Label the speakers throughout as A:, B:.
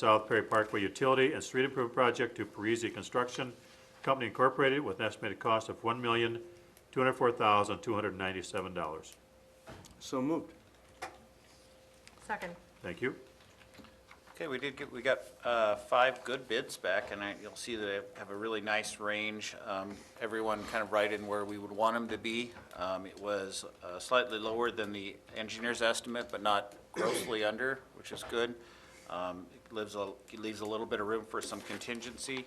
A: South Perry Parkway Utility and Street Improvement Project to Parisi Construction Company Incorporated with an estimated cost of one million, two hundred four thousand, two hundred ninety-seven dollars.
B: So moved.
C: Second.
A: Thank you.
D: Okay, we did get, we got uh, five good bids back, and I- you'll see that I have a really nice range. Um, Everyone kind of right in where we would want them to be. Um, It was uh, slightly lower than the engineer's estimate, but not grossly under, which is good. Um, It Lives, a- it leaves a little bit of room for some contingency.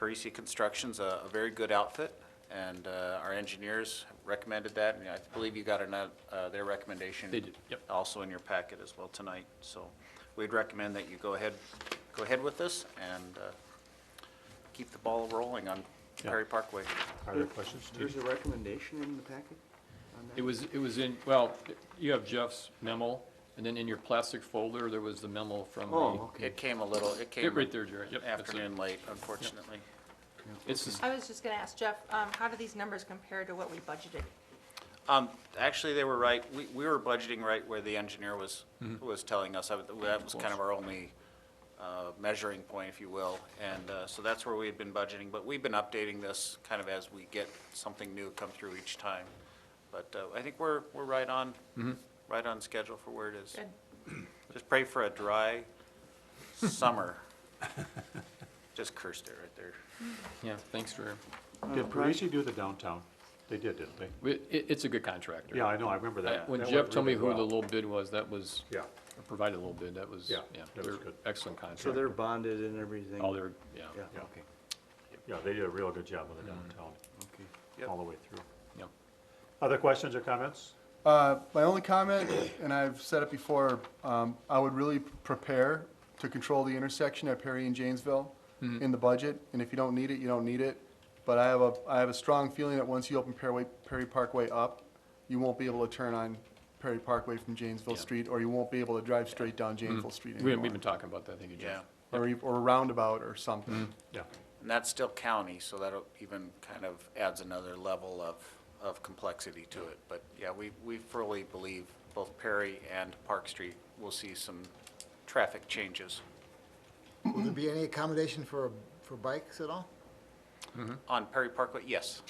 D: Parisi Construction's a a very good outfit, and uh, our engineers recommended that, and I believe you got ano- uh, their recommendation.
E: They did, yep.
D: Also in your packet as well tonight, so we'd recommend that you go ahead, go ahead with this and uh, keep the ball rolling on Perry Parkway.
A: Are there questions?
B: There's a recommendation in the packet on that?
E: It was, it was in, well, you have Jeff's memo, and then in your plastic folder, there was the memo from
B: Oh,
E: the,
B: okay.
D: It came a little, it came
E: Get right there, Jerry, yep. that's it.
D: afternoon late, unfortunately.
E: It's just,
C: I was just going to ask Jeff, um, how do these numbers compare to what we budgeted?
D: Um, Actually, they were right, we, we were budgeting right where the engineer was, was telling us. I would- That was kind Mm-hmm. of our only uh, measuring point, if you will. And uh, so that's where we had been budgeting, but we've been updating this kind of as we get something new come through each time. But uh, I think we're, we're right on, right on schedule for where it is.
C: Good.
D: Just pray for a dry summer. Just cursed it right there.
E: yeah, thanks for,
A: Did Parisi do the downtown? They did, didn't they?
E: we- it, it's a good contractor.
A: Yeah, I know, I remember
E: I-
A: that.
E: Uh, When
A: That
E: Jeff
A: went
E: told me
A: really
E: who the
A: well.
E: low bid was, that was,
A: Yeah,
E: or provided a little bid, that was, yeah.
A: Yeah, that
E: they're
A: was good.
E: Excellent
B: So
E: contractor.
B: they're bonded and everything?
E: All their, yeah,
B: Yeah,
A: Yeah.
B: okay,
A: yeah, they did a real good job with the downtown,
B: okay.
D: Yep.
A: all the way through.
E: yep.
A: Other questions or comments?
F: Uh, My only comment, and I've said it before, um, I would really prepare to control the intersection at Perry and Janesville
E: Mm-hmm.
F: in the budget, and if you don't need it, you don't need it. But I have a, I have a strong feeling that once you open Perry, Perry Parkway up, you won't be able to turn on Perry Parkway from Janesville
E: Yeah. Mm-hmm.
F: Street, or you won't be able to drive straight down Janesville Street
E: We-
F: anymore.
E: We've been talking about that, thank you,
D: Yeah.
E: Jeff.
F: Or, you- or a roundabout or
E: Mm-hmm.
F: something.
A: Yeah.
D: And that's still county, so that'll even kind of adds another level of, of complexity to it. But yeah, we, we fully believe both Perry and Park Street will see some traffic changes.
G: Will there be any accommodation for, for bikes at all?
D: On Perry Parkway, yes.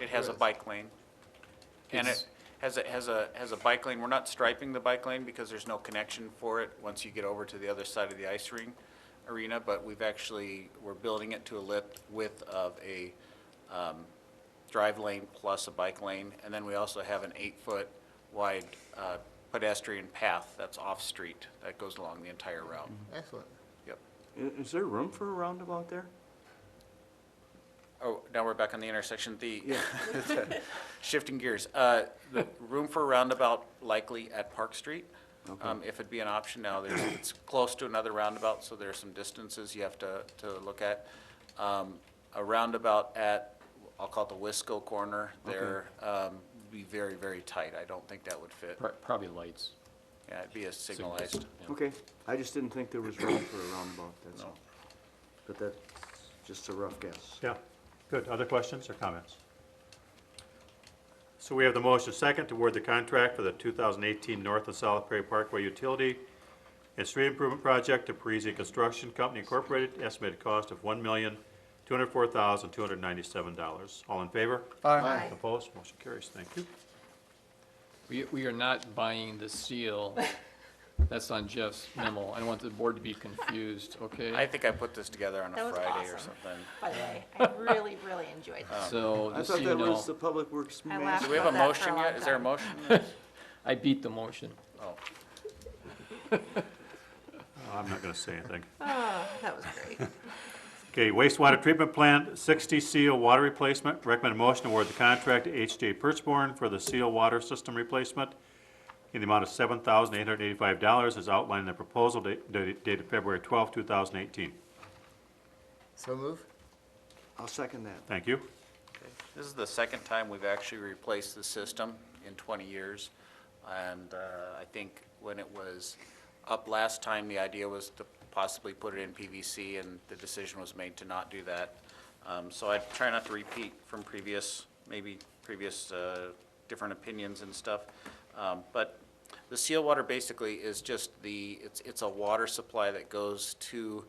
D: It has a
F: Yes.
D: bike lane. And it
E: It's-
D: has a, has a, has a bike lane. We're not striping the bike lane because there's no connection for it once you get over to the other side of the ice ring arena, but we've actually, we're building it to a lip width of a, um, drive lane plus a bike lane. And then we also have an eight-foot wide, uh, pedestrian path that's off-street that goes along the entire route.
G: Excellent.
D: Yep.
B: I- Is there room for a roundabout there?
D: Oh, now we're back on the intersection, the, shifting gears. Uh, The room for a roundabout likely at Park Street. Um, If it'd be an option now, there's, it's close to another roundabout, so there are some distances you have to, to look at. Um, A roundabout at, I'll call it the Wisco corner there, um, be very, very tight. I don't think that would fit.
E: Pro- Probably lights.
D: Yeah, it'd be a
E: signals,
D: signalized.
E: yeah.
B: Okay, I just didn't think there was room for a roundabout, that's all. But that's just a rough guess.
A: Yeah, good. Other questions or comments? So we have the motion second to award the contract for the 2018 North and South Prairie Parkway Utility and Street Improvement Project to Parisi Construction Company Incorporated, estimated cost of $1,204,297. All in favor?
F: Aye.
C: Aye.
A: Opposed? Motion carries. Thank you.
E: We, we are not buying the seal. That's on Jeff's memo. I don't want the board to be confused, okay?
D: I think I put this together on
C: That
D: a
C: was
D: Friday or
C: awesome.
D: something.
C: By the way, I really, really enjoyed
D: um,
C: this.
E: So,
B: I
E: just so
B: thought
E: you
B: that
E: know,
B: was the Public Works
C: I
B: master.
C: laughed
D: Do we have a
C: about that for
D: motion
C: long
D: yet? Is there a
C: time.
D: motion?
E: I beat the motion.
D: Oh.
A: I'm not going to say anything.
C: Oh, that was great.
A: Okay, wastewater treatment plant, 60 seal water replacement. Recommend motion to award the contract to HJ Perchborn for the seal water system replacement in the amount of $7,885 as outlined in the proposal da- da- dated February 12, 2018.
G: So move?
B: I'll second that.
A: Thank you.
D: This is the second time we've actually replaced the system in 20 years. And uh, I think when it was up last time, the idea was to possibly put it in PVC, and the decision was made to not do that. Um, So I try not to repeat from previous, maybe previous uh, different opinions and stuff. Um, But The seal water basically is just the, it's, it's a water supply that goes to